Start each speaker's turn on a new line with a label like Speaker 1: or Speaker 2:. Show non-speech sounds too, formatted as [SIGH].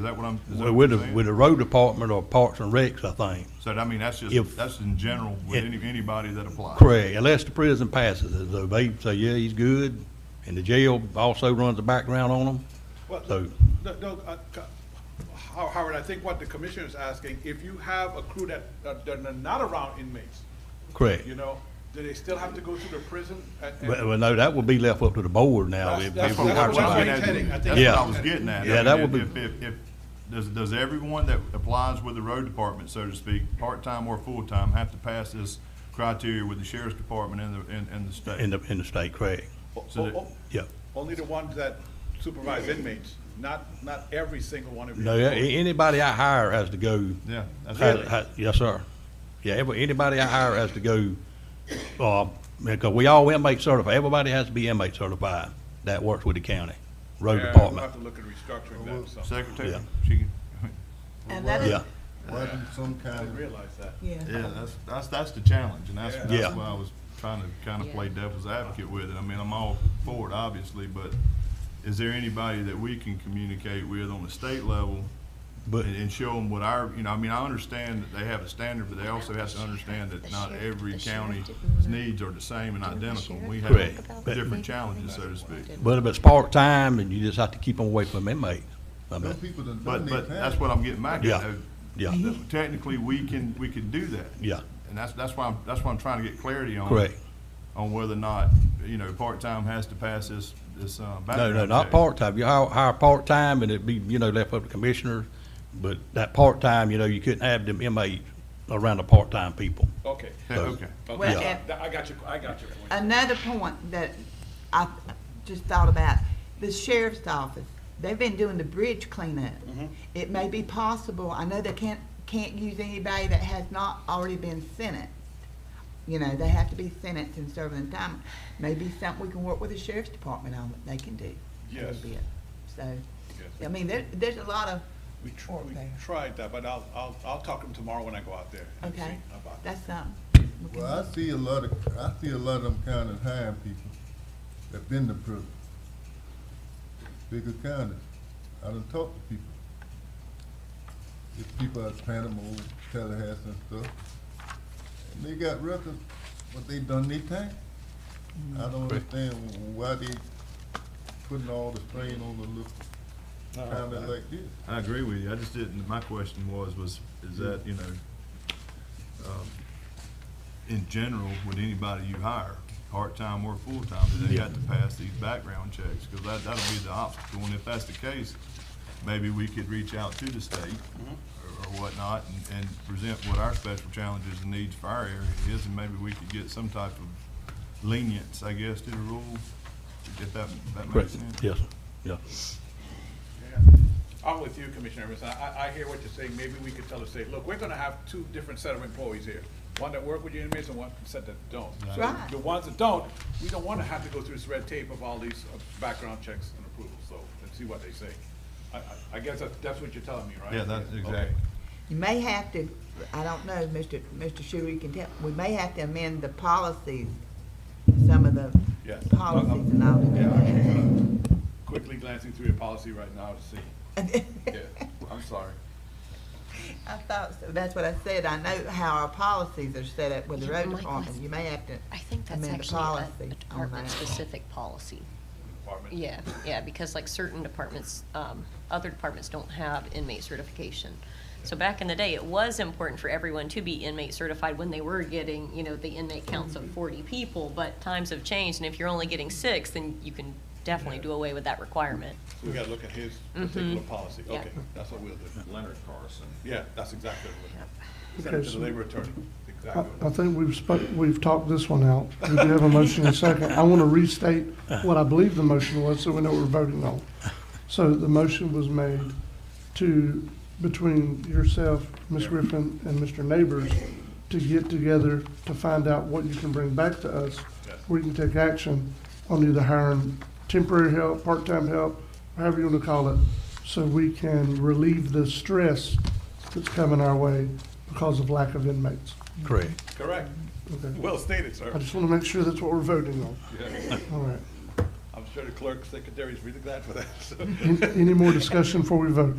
Speaker 1: Is that what I'm, is that what
Speaker 2: uh, With
Speaker 1: you're
Speaker 2: the,
Speaker 1: saying?
Speaker 2: with the road department or Parks and Recs, I think.
Speaker 1: So I mean, that's
Speaker 2: if-
Speaker 1: just, that's in general with
Speaker 2: Yeah.
Speaker 1: any, anybody that applies.
Speaker 2: Correct, unless the prison passes it, though they say, yeah, he's good, and the jail also runs a background on him.
Speaker 3: Well,
Speaker 2: So-
Speaker 3: no, no, uh, co- How- Howard, I think what the commissioner is asking, if you have a crew that, that that are not around inmates,
Speaker 2: Correct.
Speaker 3: you know, do they still have to go to the prison? and- and-
Speaker 2: Well, well, no, that would be left up to the board now.
Speaker 3: That's-
Speaker 2: if-
Speaker 3: that's
Speaker 2: if
Speaker 1: That's
Speaker 2: we
Speaker 1: what I
Speaker 2: hire
Speaker 1: was
Speaker 2: somebody.
Speaker 3: That's
Speaker 1: getting
Speaker 3: heading, I
Speaker 1: at.
Speaker 3: think.
Speaker 1: That's what
Speaker 2: Yeah.
Speaker 1: I was getting at.
Speaker 2: Yeah,
Speaker 1: I
Speaker 2: that
Speaker 1: mean,
Speaker 2: would
Speaker 1: If, if, if, does, does everyone that applies with the road department, so to speak, part-time or full-time, have to pass this criteria with the sheriff's department and the, and, and the state?
Speaker 2: In the, in the state, correct,
Speaker 3: O-
Speaker 1: so
Speaker 3: o-
Speaker 1: that-
Speaker 3: o-
Speaker 2: yeah.
Speaker 3: Only the ones that supervise inmates, not, not every single one of you.
Speaker 2: No, a- anybody I hire has to go.
Speaker 1: Yeah, that's
Speaker 2: ha-
Speaker 1: right.
Speaker 2: ha- Yes, sir. Yeah, every, anybody I hire has to go, uh, because we all inmate certified, everybody has to be inmate certified that works with the county, road
Speaker 3: Yeah, We'll
Speaker 2: department.
Speaker 3: have to look at restructuring that, so,
Speaker 1: Secretary,
Speaker 2: Yeah.
Speaker 1: she can,
Speaker 4: And that is,
Speaker 2: Yeah,
Speaker 5: Wasn't some
Speaker 3: I
Speaker 5: kind
Speaker 3: didn't
Speaker 5: of,
Speaker 3: realize that.
Speaker 4: yeah,
Speaker 1: yeah, that's, that's, that's the challenge, and that's,
Speaker 2: Yeah.
Speaker 1: that's why I was trying to kind of play devil's advocate with it. I mean, I'm all for it, obviously, but is there anybody that we can communicate with on the state level
Speaker 2: but,
Speaker 1: and, and show them what our, you know, I mean, I understand that they have a standard, but they also have to understand that not every county's needs are the same and identical. We have
Speaker 2: Correct. But-
Speaker 1: different challenges, so to speak.
Speaker 2: but if it's part-time, and you just have to keep them away from inmates. I
Speaker 5: those
Speaker 2: mean,
Speaker 5: people that
Speaker 1: But,
Speaker 5: done their
Speaker 1: but that's
Speaker 5: time,
Speaker 1: what I'm getting back at.
Speaker 2: Yeah.
Speaker 1: though.
Speaker 2: Yeah.
Speaker 1: Technically, we can, we can do that.
Speaker 2: Yeah.
Speaker 1: And that's, that's why, I'm that's why I'm trying to get clarity on.
Speaker 2: Correct.
Speaker 1: On whether or not, you know, part-time has to pass this, this, uh,
Speaker 2: No,
Speaker 1: background
Speaker 2: no, not
Speaker 1: check.
Speaker 2: part-time. You hire, hire part-time and it'd be, you know, left up to commissioners. But that part-time, you know, you couldn't have them inmates around the part-time people.
Speaker 3: Okay.
Speaker 1: Yeah, Okay.
Speaker 4: Well,
Speaker 3: Okay,
Speaker 4: and-
Speaker 3: I got you, I got you.
Speaker 4: another point that I just thought about, the sheriff's office, they've been doing the bridge cleanup. It may be possible, I know they can't, can't use anybody that has not already been sentenced. You know, they have to be sentenced and serving the time. Maybe something we can work with the sheriff's department on that they can do. a little
Speaker 3: Yes.
Speaker 4: bit. So,
Speaker 3: Yes.
Speaker 4: I mean, there, there's a lot of
Speaker 3: We tr-
Speaker 4: work
Speaker 3: we
Speaker 4: there.
Speaker 3: tried that, but I'll, I'll, I'll talk to him tomorrow when I go out there. and
Speaker 4: Okay,
Speaker 3: see about that.
Speaker 4: that's something. we can-
Speaker 5: well, I see a lot of, I see a lot of them kind of hiring people that been to prison. Bigger counties. I done talked to people. If people out of Panama, Tallahassee and stuff, and they got records, but they done their time. I don't understand why they putting all the strain on the little county like this.
Speaker 1: I agree with you. I just didn't, my question was, was, is that, you know, um, in general, with anybody you hire, part-time or full-time, do they got to pass these background checks? Because that, that'll be the obstacle. And if that's the case, maybe we could reach out to the state or or whatnot and, and present what our special challenges and needs for our area is, and maybe we could get some type of lenience, I guess, to the rule, if that, that makes
Speaker 2: Correct.
Speaker 1: sense.
Speaker 2: Yes, sir. yeah.
Speaker 3: Yeah. I'm with you, Commissioner Evans. I, I, I hear what you're saying. Maybe we could tell the state, look, we're gonna have two different set of employees here. One that work with your inmates and one set that don't.
Speaker 4: That's right.
Speaker 3: The ones that don't, we don't wanna have to go through this red tape of all these uh, background checks and approvals, so let's see what they say. I, I, I guess that's, that's what you're telling me, right?
Speaker 1: Yeah, that's
Speaker 3: Okay.
Speaker 1: exactly.
Speaker 4: You may have to, I don't know, Mr. Mr. Schuler, you can tell, we may have to amend the policies, some of the
Speaker 3: Yes.
Speaker 4: policies and all
Speaker 3: Yeah,
Speaker 4: that.
Speaker 3: I'm actually gonna quickly glancing through your policy right now to see. Yeah, I'm sorry.
Speaker 4: [LAUGHS] I thought, so. that's what I said, I know how our policies are set up with the
Speaker 6: You
Speaker 4: road
Speaker 6: might
Speaker 4: department,
Speaker 6: want-
Speaker 4: you may have to
Speaker 6: I think that's
Speaker 4: amend the
Speaker 6: actually a-
Speaker 4: policy
Speaker 6: a
Speaker 4: on that.
Speaker 6: department-specific policy.
Speaker 3: Department.
Speaker 6: Yeah, yeah, because like certain departments, um, other departments don't have inmate certification. So back in the day, it was important for everyone to be inmate certified when they were getting, you know, the inmate counts of forty people, but times have changed, and if you're only getting six, then you can definitely do away with that requirement.
Speaker 3: We gotta look at his particular policy.
Speaker 6: Yeah.
Speaker 3: Okay, that's what we'll do.
Speaker 7: Leonard Carson.
Speaker 3: Yeah, that's exactly what, send it to
Speaker 8: Okay,
Speaker 3: the
Speaker 8: so-
Speaker 3: labor attorney, exactly
Speaker 8: I
Speaker 3: what.
Speaker 8: I think we've spoke, we've talked this one out. We do have a motion and a second. I want to restate what I believe the motion was, so we know what we're voting on. So the motion was made to, between yourself, Ms. Griffin, and Mr. Neighbors, to get together to find out what you can bring back to us.
Speaker 3: Yes.
Speaker 8: We can take action on either hiring temporary help, part-time help, however you want to call it, so we can relieve the stress that's coming our way because of lack of inmates.
Speaker 2: Correct.
Speaker 3: Correct.
Speaker 8: Okay.
Speaker 3: Well stated,
Speaker 8: I
Speaker 3: sir.
Speaker 8: just want to make sure that's what we're voting on.
Speaker 3: Yeah.
Speaker 8: All right.
Speaker 3: I'm sure the clerk secretary is really glad for that. so.
Speaker 8: An- Any more discussion before we vote?